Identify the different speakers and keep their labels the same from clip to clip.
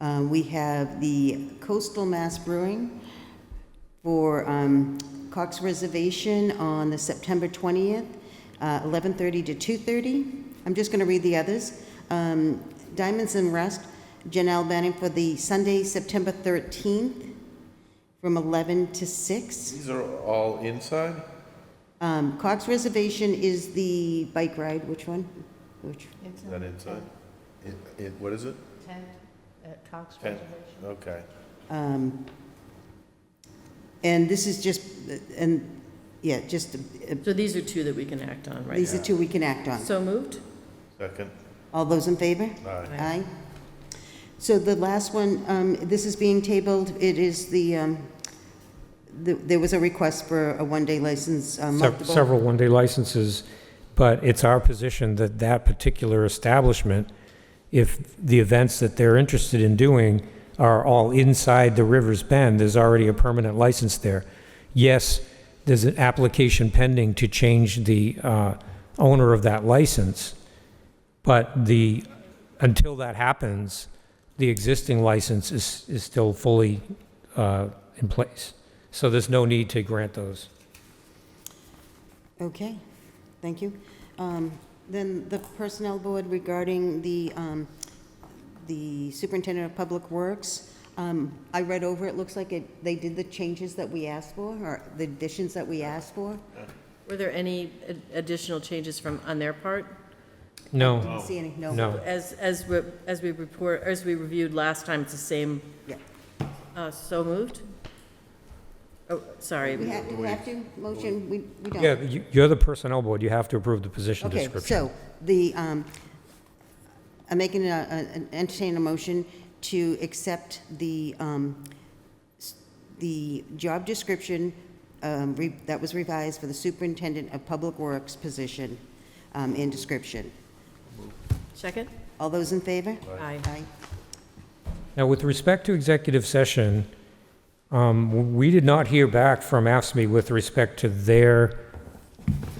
Speaker 1: Um, We have the Coastal Mass Brewing for um, Cox Reservation on the September 20th, uh, 11:30 to 2:30. I'm just going to read the others. Um, Diamonds and Rust, Janelle Banning for the Sunday, September 13th, from 11 to 6.
Speaker 2: These are all inside?
Speaker 1: Um, Cox Reservation is the bike ride, which one? Which?
Speaker 3: It's
Speaker 2: Is that inside? It, it, what is it?
Speaker 3: Tent
Speaker 4: uh,
Speaker 3: at Cox
Speaker 2: Tent.
Speaker 3: Reservation.
Speaker 2: Okay.
Speaker 1: Um, And this is just, and, yeah, just, uh,
Speaker 4: So these are two that we can act on right
Speaker 1: these are
Speaker 4: now.
Speaker 1: two we can act on.
Speaker 4: So moved?
Speaker 2: Second,
Speaker 1: All those in favor?
Speaker 2: aye.
Speaker 1: Aye. So the last one, um, this is being tabled, it is the, um, the- there was a request for a one-day license, uh,
Speaker 5: Sev-
Speaker 1: multiple-
Speaker 5: several one-day licenses, but it's our position that that particular establishment, if the events that they're interested in doing are all inside the river's bend, there's already a permanent license there. Yes, there's an application pending to change the uh, owner of that license, but the, until that happens, the existing license is, is still fully uh, in place. So there's no need to grant those.
Speaker 1: Okay, thank you. Um, Then the Personnel Board regarding the, um, the Superintendent of Public Works, um, I read over, it looks like it, they did the changes that we asked for, or the additions that we asked for.
Speaker 4: Were there any ad- additional changes from, on their part?
Speaker 5: No.
Speaker 1: Didn't see any, no?
Speaker 5: Oh. No.
Speaker 4: As, as, we- as we report, as we reviewed last time, it's the same,
Speaker 1: Yeah.
Speaker 4: uh, so moved? Oh, sorry.
Speaker 1: We have, do we have to motion? We, we don't.
Speaker 5: Yeah, you- you're the personnel board, you have to approve the position
Speaker 1: Okay,
Speaker 5: description.
Speaker 1: so the, um, I'm making a, a- an entertain a motion to accept the, um, s- the job description um, re- that was revised for the superintendent of public works position um, and description.
Speaker 4: Second?
Speaker 1: All those in favor?
Speaker 4: Aye.
Speaker 1: Aye.
Speaker 5: Now, with respect to executive session, um, we did not hear back from AFSMI with respect to their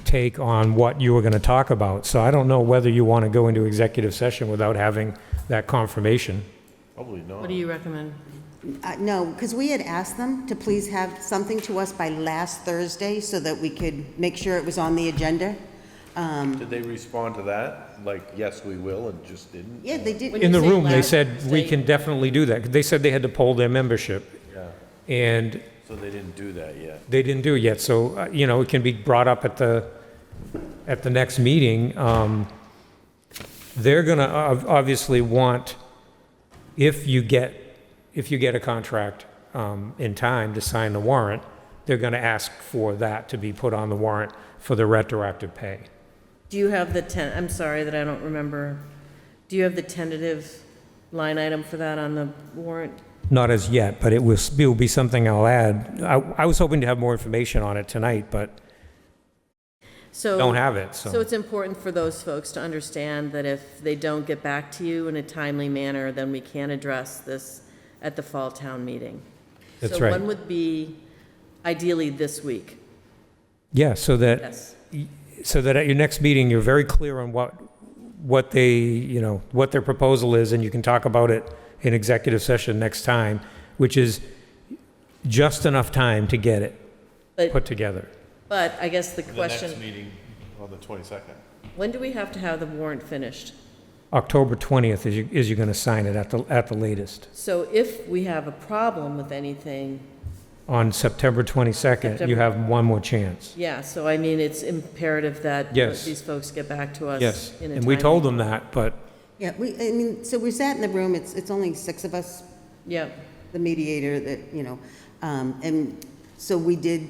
Speaker 5: take on what you were going to talk about. So I don't know whether you want to go into executive session without having that confirmation.
Speaker 2: Probably not.
Speaker 4: What do you recommend?
Speaker 1: Uh, No, because we had asked them to please have something to us by last Thursday so that we could make sure it was on the agenda. Um,
Speaker 2: Did they respond to that? Like, yes, we will, and just didn't?
Speaker 1: Yeah, they did.
Speaker 4: When
Speaker 5: In the
Speaker 4: you say
Speaker 5: room, they
Speaker 4: last
Speaker 5: said, we
Speaker 4: Thursday-
Speaker 5: can definitely do that. They said they had to poll their membership,
Speaker 2: Yeah,
Speaker 5: and
Speaker 2: so they didn't do that yet.
Speaker 5: They didn't do it yet, so, uh, you know, it can be brought up at the, at the next meeting. Um, They're gonna ob- obviously want, if you get, if you get a contract um, in time to sign the warrant, they're gonna ask for that to be put on the warrant for the retroactive pay.
Speaker 4: Do you have the ten, I'm sorry that I don't remember. Do you have the tentative line item for that on the warrant?
Speaker 5: Not as yet, but it will, s- will be something I'll add. I, I was hoping to have more information on it tonight, but
Speaker 4: So.
Speaker 5: don't have it,
Speaker 4: So it's important for those folks to understand that if they don't get back to you in a timely manner, then we can address this at the fall town meeting.
Speaker 5: That's
Speaker 4: So
Speaker 5: right.
Speaker 4: one would be ideally this week,
Speaker 5: Yeah, so that.
Speaker 4: yes.
Speaker 5: so that at your next meeting, you're very clear on what, what they, you know, what their proposal is, and you can talk about it in executive session next time, which is just enough time to get it
Speaker 4: But,
Speaker 5: put together.
Speaker 4: but I guess the
Speaker 2: The next
Speaker 4: question,
Speaker 2: meeting on the twenty-second.
Speaker 4: when do we have to have the warrant finished?
Speaker 5: October 20th is you, is you're going to sign it at the, at the latest.
Speaker 4: So if we have a problem with anything,
Speaker 5: On September 22nd, you
Speaker 4: September-
Speaker 5: have one more chance.
Speaker 4: yeah, so I mean, it's imperative that
Speaker 5: Yes.
Speaker 4: these folks get back to us
Speaker 5: Yes,
Speaker 4: in a
Speaker 5: and we told
Speaker 4: timely-
Speaker 5: them that, but
Speaker 1: Yeah, we, I mean, so we sat in the room, it's, it's only six of us
Speaker 4: Yeah,
Speaker 1: the mediator that, you know, um, and so we did,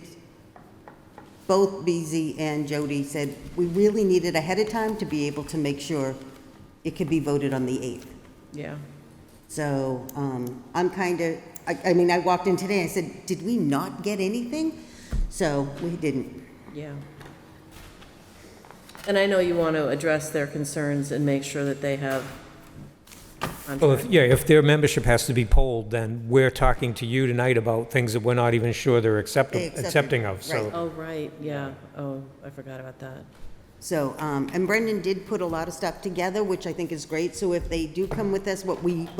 Speaker 1: both BZ and Jody said, we really needed ahead of time to be able to make sure it could be voted on the 8th.
Speaker 4: yeah.
Speaker 1: So, um, I'm kind of, I, I mean, I walked in today, I said, did we not get anything? So, we didn't.
Speaker 4: Yeah. And I know you want to address their concerns and make sure that they have.
Speaker 5: Well, if, yeah, if their membership has to be polled, then we're talking to you tonight about things that we're not even sure they're
Speaker 1: They
Speaker 5: accepting,
Speaker 1: accepted,
Speaker 5: accepting of,
Speaker 1: right.
Speaker 5: so.
Speaker 4: Oh, right, yeah. Oh, I forgot about that.
Speaker 1: So, um, and Brendan did put a lot of stuff together, which I think is great, so if they do come with us, what we